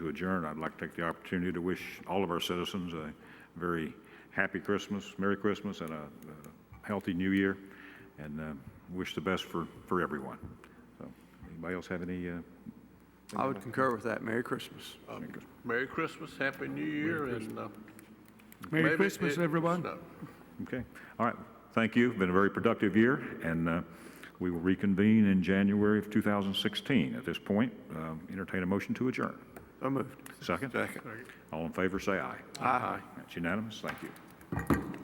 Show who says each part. Speaker 1: adjourn, I'd like to take the opportunity to wish all of our citizens a very happy Christmas, Merry Christmas, and a a healthy New Year, and uh, wish the best for, for everyone. So, Anybody else have any? uh,
Speaker 2: I would concur with that. Merry Christmas.
Speaker 3: Merry Christmas, Happy New Year, and. uh,
Speaker 4: Merry
Speaker 3: maybe
Speaker 4: Christmas,
Speaker 3: it- it's
Speaker 4: everyone.
Speaker 3: not-
Speaker 1: Okay, all right, thank you, been a very productive year, and uh, we will reconvene in January of 2016. At this point, um, entertain a motion to adjourn.
Speaker 2: So moved.
Speaker 1: Second?
Speaker 3: Second.
Speaker 1: All in favor, say aye.
Speaker 2: Aye.
Speaker 1: That's unanimous, thank you.